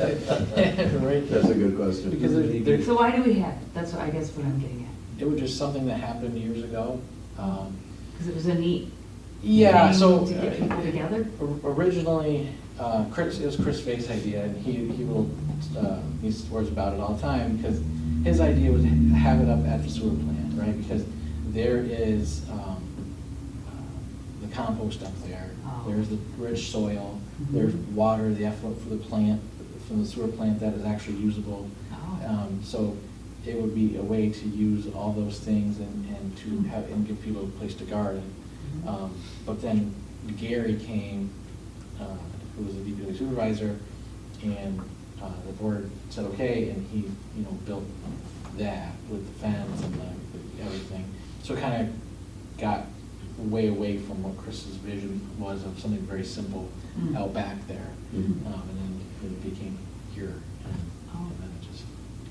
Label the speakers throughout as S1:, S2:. S1: Right.
S2: That's a good question.
S1: Because there- there's,
S3: So why do we have it? That's what, I guess what I'm getting at.
S1: it was just something that happened years ago. Um,
S3: Because it was a neat
S1: Yeah,
S3: thing
S1: so. uh,
S3: To get people together?
S1: O- Originally, uh, Chris, it was Chris Fake's idea, and he, he will, uh, he swears about it all the time, because his idea was to have it up at the sewer plant, right? Because there is, um, uh, the compost up there,
S3: Oh.
S1: there's the rich soil,
S3: Mhm.
S1: there's water, the effluent for the plant, from the sewer plant that is actually usable.
S3: Oh.
S1: Um, So it would be a way to use all those things and, and to have, and give people a place to garden.
S3: Mhm.
S1: Um, But then Gary came, uh, who was the DPW supervisor, and uh, the board said, okay, and he, you know, built that with the fence and the, everything. So it kind of got way away from what Chris's vision was of something very simple
S3: Mm.
S1: out back there.
S2: Mhm.
S1: Um, And then it became here.
S3: Oh.
S1: And then it just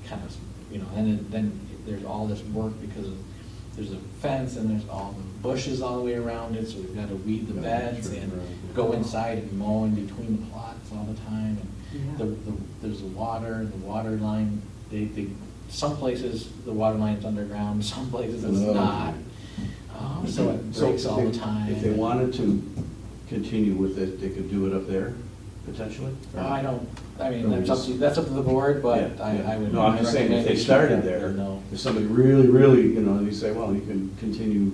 S1: kind of, you know, and then- then there's all this work because of- there's a fence and there's all the bushes all the way around it, so we've got to weed the
S2: Yeah,
S1: beds
S2: sure,
S1: and
S2: right.
S1: go inside and mow in between the plots all the time. And the,
S3: Yeah.
S1: the, there's the water, the water line, they, they, some places the water line's underground, some places it's
S2: Oh.
S1: not. Um, So it
S2: So
S1: breaks all
S2: if
S1: the
S2: they-
S1: time.
S2: If they wanted to continue with it, they could do it up there, potentially? or-
S1: Uh, Oh, I don't, I mean,
S2: No,
S1: that's up to, that's up to the board, but
S2: Yeah, yeah.
S1: I, I would.
S2: No, I'm just saying, if they started there,
S1: No.
S2: if somebody really, really, you know, you say, well, you can continue,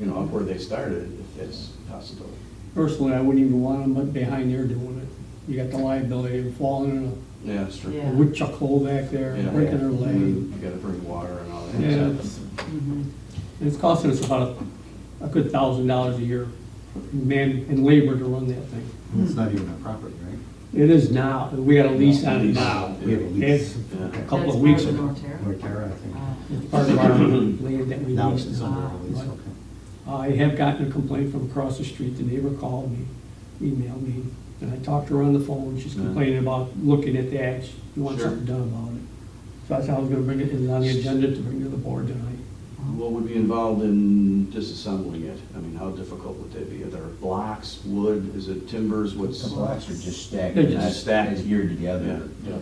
S2: you know, up where they started, if that's possible.
S4: Personally, I wouldn't even want them behind there doing it. You got the liability of falling in
S2: Yeah, that's true.
S4: a
S3: Yeah.
S4: woodchuck hole back there,
S2: Yeah. Mm-hmm.
S4: breaking their
S2: You
S4: leg.
S2: gotta bring water and all that.
S4: Yeah,
S2: stuff.
S4: it's,
S3: Mhm.
S4: it's costing us about a, a good thousand dollars a year, in man and labor to run that thing.
S5: It's not even our property, right?
S4: It is now, we got a lease on it
S2: Lease,
S4: now.
S5: We have a
S4: It's
S5: lease.
S2: Yeah.
S4: a couple
S3: That's
S4: of weeks
S3: part
S4: ago.
S3: of the Norterra?
S5: Norterra, I think.
S3: Ah.
S4: It's part of our land that we
S5: Now it's
S4: leased.
S5: under our lease,
S4: But
S5: okay.
S4: I have gotten a complaint from across the street, the neighbor called me, emailed me, and I talked to her on the phone, she's
S2: Yeah.
S4: complaining about looking at that, she wants
S2: Sure.
S4: something done about it. So I said I was gonna bring it in on the agenda to bring to the board tonight.
S2: What would be involved in disassembling it? I mean, how difficult would that be? Are there blocks, wood, is it timbers, what's?
S5: The blocks are just stacked,
S4: They're
S5: not
S4: just
S2: stacked.
S5: stacked geared
S2: Yeah,
S5: together.
S2: okay.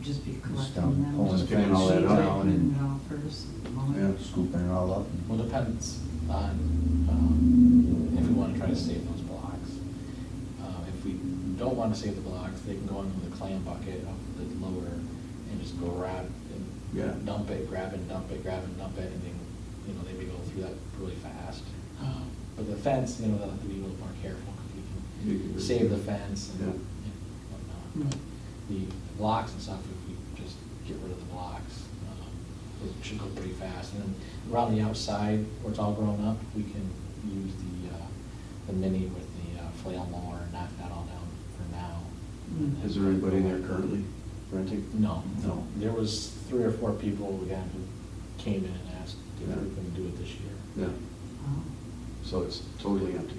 S3: Just be
S5: Just
S3: collecting
S5: down,
S3: them.
S5: pulling the
S2: Just picking
S5: fence
S2: all that up.
S5: down
S3: Putting
S5: and
S3: it uh, all first, mowing.
S2: Yeah.
S5: scooping it all up.
S1: Well, depends on, um, if we wanna try to save those blocks. Uh, if we don't wanna save the blocks, they can go into the clam bucket up the lower and just go grab
S2: Yeah.
S1: and dump it, grab and dump it, grab and dump it, and then, you know, they may go through that really fast. Um, But the fence, you know, they'll have to be a little more careful, 'cause we
S2: You
S1: can
S2: can-
S1: save the fence and
S2: Yeah.
S1: and whatnot. But The blocks and stuff, if we just get rid of the blocks, um, it should go pretty fast. And then around the outside, where it's all grown up, we can use the, uh, the mini with the uh, flail mower, and knock that all down for now. And then-
S2: Is there anybody there currently renting?
S1: No, no.
S2: No.
S1: There was three or four people, again, who came in and asked if we
S2: Yeah.
S1: can do it this year.
S2: Yeah,
S3: Oh.
S2: so it's totally empty.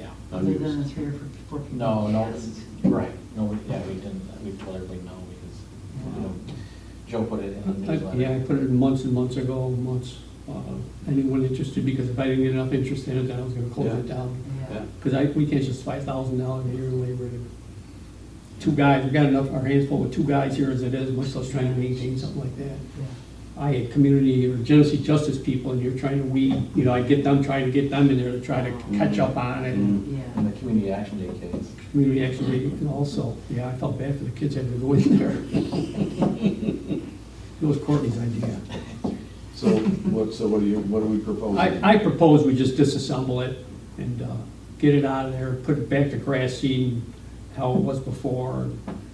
S1: Yeah.
S3: Other than the three or four people.
S1: No,
S3: we
S1: no,
S3: asked.
S1: right, no, we- yeah, we didn't, we told everybody no, because, you know, Joe put it in the
S4: I-
S1: newsletter.
S4: Yeah, I put it in months and months ago, months, uh, anyone interested, because if I didn't get enough interest in it, then I was gonna close it
S2: Yeah.
S4: down.
S3: Yeah.
S2: Yeah.
S4: Because I, we can't just five thousand dollars a year in labor. and Two guys, we got enough, our hands full with two guys here as it is, much less trying to maintain something like that.
S3: Yeah.
S4: I had community or Genesee justice people, and you're trying to weed, you know, I get them, try to get them in there to try to catch up on it. and
S1: In
S3: Yeah.
S1: the community action day case.
S4: Community action meeting, and also, yeah, I felt bad for the kids having to go in there. It was Courtney's idea.
S2: So what, so what do you, what are we proposing?
S4: I, I propose we just disassemble it and uh, get it out of there, put it back to grass seed, how it was before,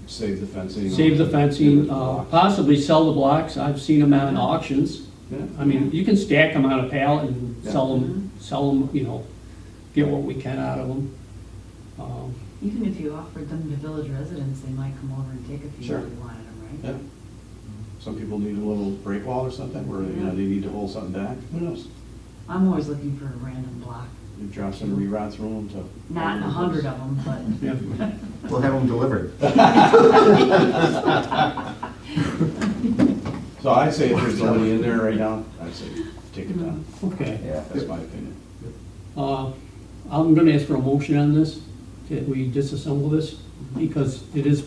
S2: Save the fencing.
S4: save the fencing, uh,
S2: Blocks.
S4: possibly sell the blocks, I've seen them on auctions.
S2: Yeah.
S4: I mean, you can stack them on a pallet and
S2: Yeah.
S4: sell them, sell them, you know, get what we can out of them. Um,
S3: Even if you offered them to village residents, they might come over and take a few
S2: Sure.
S3: if you wanted them, right?
S2: Yeah. Some people need a little break wall or something, where, you know, they need to hold something back, who knows?
S3: I'm always looking for a random block,
S2: You drop some reroute through them to.
S3: not a hundred of them, but.
S4: yeah.
S5: We'll have them delivered.
S2: So I'd say if there's nobody in there right now, I'd say take it down,
S4: Okay.
S5: Yeah.
S2: that's my opinion.
S4: Uh, I'm gonna ask for a motion on this, that we disassemble this, because it is